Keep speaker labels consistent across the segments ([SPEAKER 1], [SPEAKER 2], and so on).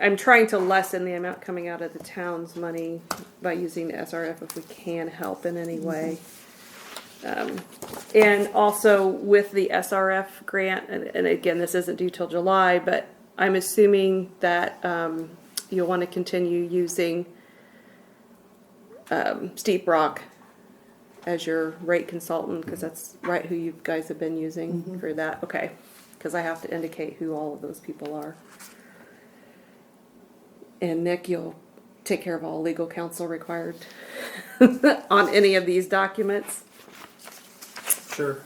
[SPEAKER 1] I'm trying to lessen the amount coming out of the town's money by using the SRF if we can help in any way. Um, And also with the SRF grant, and, and again, this isn't due till July, but I'm assuming that, um, you'll want to continue using, um, Steep Rock as your rate consultant, because that's right who you guys have been using for that, okay? Because I have to indicate who all of those people are. And Nick, you'll take care of all legal counsel required on any of these documents.
[SPEAKER 2] Sure.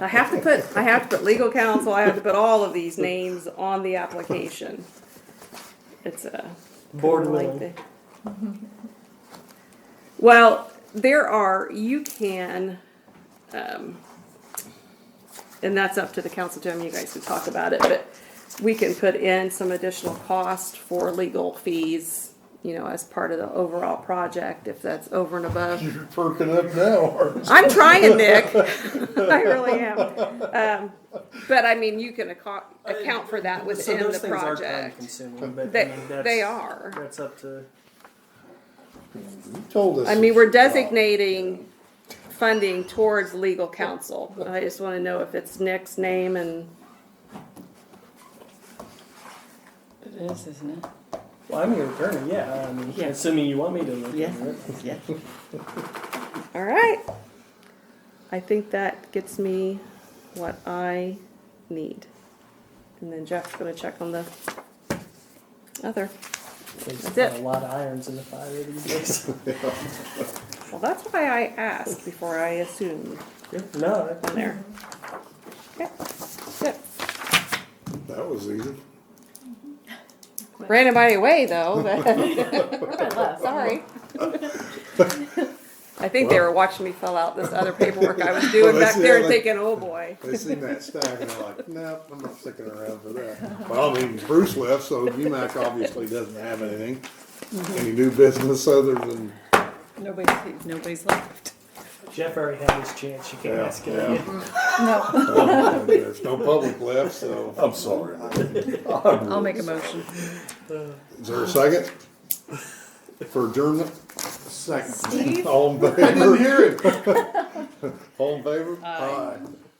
[SPEAKER 1] I have to put, I have to put legal counsel, I have to put all of these names on the application. It's a.
[SPEAKER 2] Board
[SPEAKER 1] kinda like
[SPEAKER 2] willing.
[SPEAKER 1] the- Well, there are, you can, um, and that's up to the council, Jim, you guys can talk about it, but we can put in some additional cost for legal fees, you know, as part of the overall project, if that's over and above.
[SPEAKER 3] You're perking up now, aren't you?
[SPEAKER 1] I'm trying, Nick. I really am. Um, but I mean, you can acco- account for that
[SPEAKER 2] so
[SPEAKER 1] within
[SPEAKER 2] those
[SPEAKER 1] the
[SPEAKER 2] things Are time
[SPEAKER 1] project.
[SPEAKER 2] consuming, but I
[SPEAKER 1] They,
[SPEAKER 2] mean, that's,
[SPEAKER 1] they are.
[SPEAKER 2] That's up to.
[SPEAKER 3] You told us.
[SPEAKER 1] I mean, we're
[SPEAKER 3] it's wrong.
[SPEAKER 1] designating funding towards legal counsel. I just want to know if it's Nick's name and
[SPEAKER 4] It is, isn't it?
[SPEAKER 2] Well, I'm your attorney. Yeah. I mean,
[SPEAKER 4] Yeah.
[SPEAKER 2] assuming you want me to look
[SPEAKER 4] Yeah,
[SPEAKER 2] into it.
[SPEAKER 4] yeah.
[SPEAKER 1] All right. I think that gets me what I need. And then Jeff's gonna check on the other.
[SPEAKER 2] There's
[SPEAKER 1] That's it.
[SPEAKER 2] A lot of irons in the fire these days.
[SPEAKER 1] Well, that's why I asked before I assumed
[SPEAKER 2] no.
[SPEAKER 1] on there. Okay, that's it.
[SPEAKER 3] That was easy.
[SPEAKER 1] Ran anybody away though, but sorry. I think they were watching me fill out this other paperwork I was doing back there and thinking, oh boy.
[SPEAKER 3] They seen that stack and they're like, nope, I'm not sticking around for that. Well, I mean, Bruce left, so UMac obviously doesn't have anything. Any new business other than,
[SPEAKER 4] Nobody's, nobody's left.
[SPEAKER 2] Jeff already had his chance. You can't
[SPEAKER 3] Yeah,
[SPEAKER 2] ask it
[SPEAKER 3] yeah.
[SPEAKER 2] again.
[SPEAKER 4] No.
[SPEAKER 3] uh, there's no public left, so. I'm sorry.
[SPEAKER 4] I'll make a motion.
[SPEAKER 3] Is there a second? For adjournment?
[SPEAKER 5] Second.
[SPEAKER 3] All in
[SPEAKER 5] I didn't
[SPEAKER 3] favor?
[SPEAKER 5] hear it.
[SPEAKER 3] All in favor? Aye.